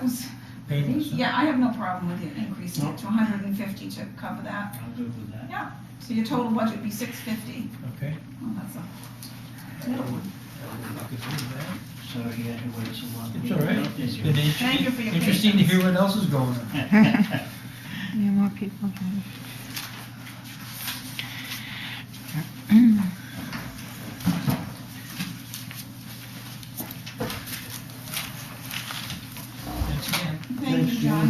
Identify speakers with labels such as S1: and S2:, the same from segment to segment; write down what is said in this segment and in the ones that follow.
S1: those.
S2: payments.
S1: Yeah, I have no problem with it increasing it to hundred and fifty to cover that.
S3: I'm good with that.
S1: So your total budget would be six fifty.
S2: Okay.
S1: Well, that's a,
S3: Sorry, you had to wait so long.
S2: It's all right. It's been
S1: Thank you for
S2: interesting,
S1: your
S2: interesting to hear what else is going on.
S4: Yeah, more people.
S2: Thanks again.
S1: thank you, John.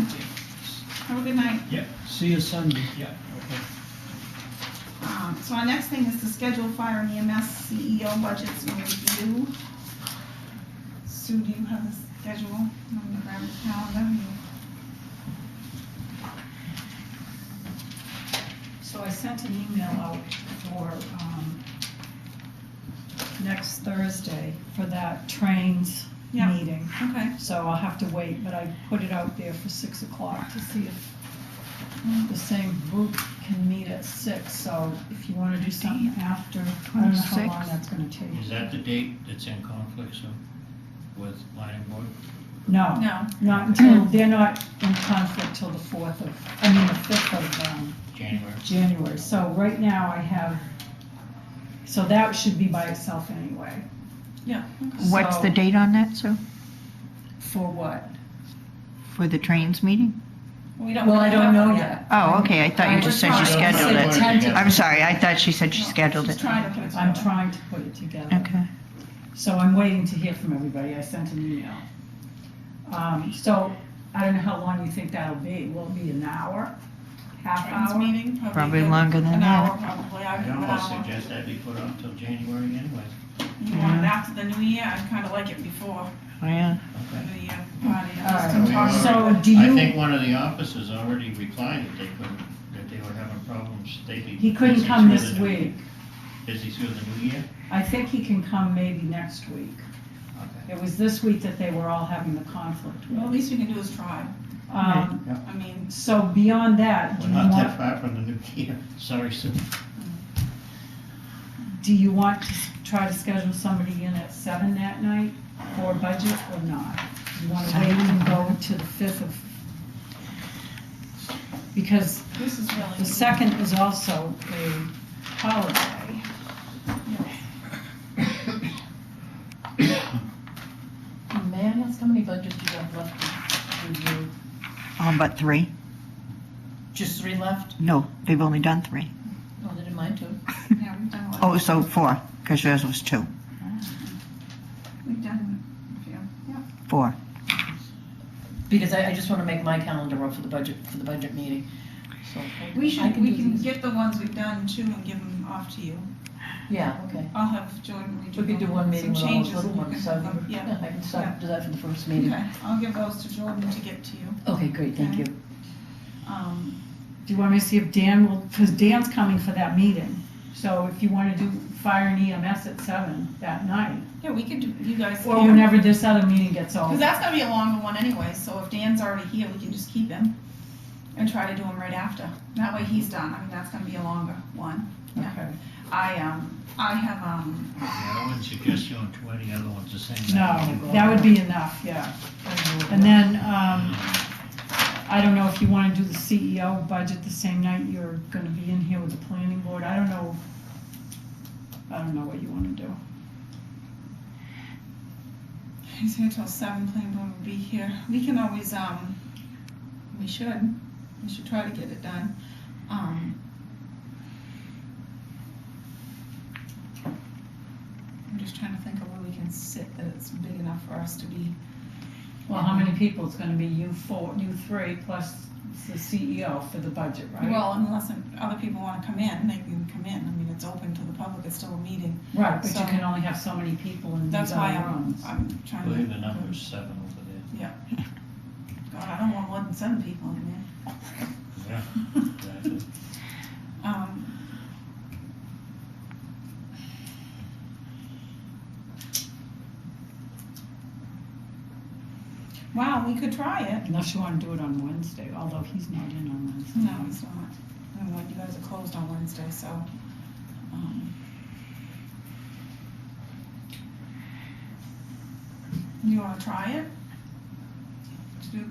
S1: Have a good night.
S3: See you Sunday.
S2: Yeah.
S1: Um, So our next thing is to schedule fire and E EMS CEO budgets and review. Sue, do you have the schedule? I'm gonna grab the calendar.
S5: So I sent an email out for, um, next Thursday for that trains
S1: Yeah.
S5: meeting.
S1: Okay.
S5: So I'll have to wait, but I put it out there for six o'clock to see if the same group can meet at six. So if you wanna do something after, I don't know how long
S4: 26.
S5: that's gonna take.
S3: Is that the date that's in conflict, so, with planning board?
S5: No,
S1: No,
S5: not until, they're not in conflict till the fourth of, I mean, the fifth of, um,
S3: January?
S5: January, so right now I have, so that should be by itself anyway.
S1: yeah. okay.
S4: What's the
S5: So-
S4: date on that, Sue?
S5: For what?
S4: For the trains meeting?
S1: We don't.
S5: Well, I don't know
S1: have
S5: yet.
S4: Oh, okay, I thought you
S5: I
S4: just
S1: was
S4: said she
S1: trying to
S4: scheduled
S3: say
S4: it.
S3: tentative.
S4: I'm sorry, I thought she said she
S1: No,
S4: scheduled
S1: She's
S4: it.
S1: trying to put it together.
S5: I'm trying to put it together.
S4: Okay.
S5: So I'm waiting to hear from everybody, I sent an email. Um, so I don't know how long you think that'll be, will it be an hour? Half
S1: Friends
S5: hour?
S1: meeting, probably.
S4: Probably
S1: good.
S4: longer than
S1: An
S4: that.
S1: hour, probably. I
S3: I
S1: would give an
S3: almost
S1: hour.
S3: suggest that be put off till January anyway.
S1: You want it after the new year? I'd kind of like it before
S4: Oh, yeah.
S1: the
S3: Okay.
S1: new year party.
S5: All
S1: just
S5: right.
S1: to talk.
S5: So do
S3: I
S5: you,
S3: think one of the officers already replied that they couldn't, that they were having problems, they'd be.
S5: he couldn't
S3: busy
S5: come
S3: through
S5: this
S3: the new-
S5: week.
S3: Busy through the new year?
S5: I think he can come maybe next week.
S3: Okay.
S5: It was this week that they were all having the conflict
S1: Well, at
S5: with.
S1: least we can do is try.
S5: Um,
S1: I mean,
S5: so beyond that, do
S3: We're
S5: you
S3: not
S5: want
S3: that far from the new year, sorry, Sue.
S5: Do you want to s- try to schedule somebody in at seven that night for budget or not? You wanna wait and go to the fifth of? Because
S1: this is really.
S5: the second is also a holiday.
S6: May I ask how many budgets you have left to review?
S4: Um, but three?
S6: Just three left?
S4: No, they've only done three.
S6: No, Oh, they didn't mind two.
S1: Yeah, we've done a lot.
S4: Oh, so four, because yours was two.
S1: We've done a few.
S4: Four.
S6: Because I, I just want to make my calendar up for the budget, for the budget meeting. So
S1: We
S6: I
S1: should,
S6: can
S1: we
S6: do
S1: can
S6: these.
S1: get the ones we've done too and give them off to you.
S6: Yeah, okay.
S1: I'll have Jordan redo
S6: We could do one meeting with
S1: some
S6: all those
S1: changes.
S6: little
S1: and you
S6: ones,
S1: can
S6: so
S1: have them. Yeah,
S6: yeah, I can
S1: Yeah.
S6: start, do that for the first meeting.
S1: okay, I'll give those to Jordan to get to you.
S6: Okay, great, thank you.
S1: Um,
S5: Do you want me to see if Dan will, because Dan's coming for that meeting. So if you wanna do fire and EMS at seven that night,
S1: Yeah, we could do, you guys.
S5: or whenever this other meeting gets
S1: Because
S5: over.
S1: that's gonna be a longer one anyway, so if Dan's already here, we can just keep him and try to do him right after. That way he's done, I mean, that's gonna be a longer one. yeah.
S5: Okay.
S1: I, um, I have, um,
S3: Yeah, I wouldn't suggest you on twenty, other ones the same. night.
S5: No, that would be enough, yeah. And then, um, I don't know if you wanna do the CEO budget the same night you're gonna be in here with the planning board, I don't know. I don't know what you wanna do.
S1: he's here till seven, planning board will be here. We can always, um, we should, we should try to get it done. Um. I'm just trying to think of where we can sit that it's big enough for us to be.
S5: Well, how many people, it's gonna be you four, you three, plus the CEO for the budget, right?
S1: Well, unless other people want to come in, they can come in. I mean, it's open to the public, it's still a meeting.
S5: Right, but
S1: so-
S5: you can only have so many people in
S1: That's
S5: these
S1: why
S5: other
S1: I'm,
S5: rooms.
S1: I'm
S3: I
S1: trying to.
S3: believe the number's seven over there.
S1: God, I don't want more than seven people in there.
S3: Exactly.
S1: Um, Wow, we could try it.
S5: Unless you wanna do it on Wednesday, although he's not in on Wednesday.
S1: No, it's not. I mean, you guys are closed on Wednesday, so. um, You wanna try it?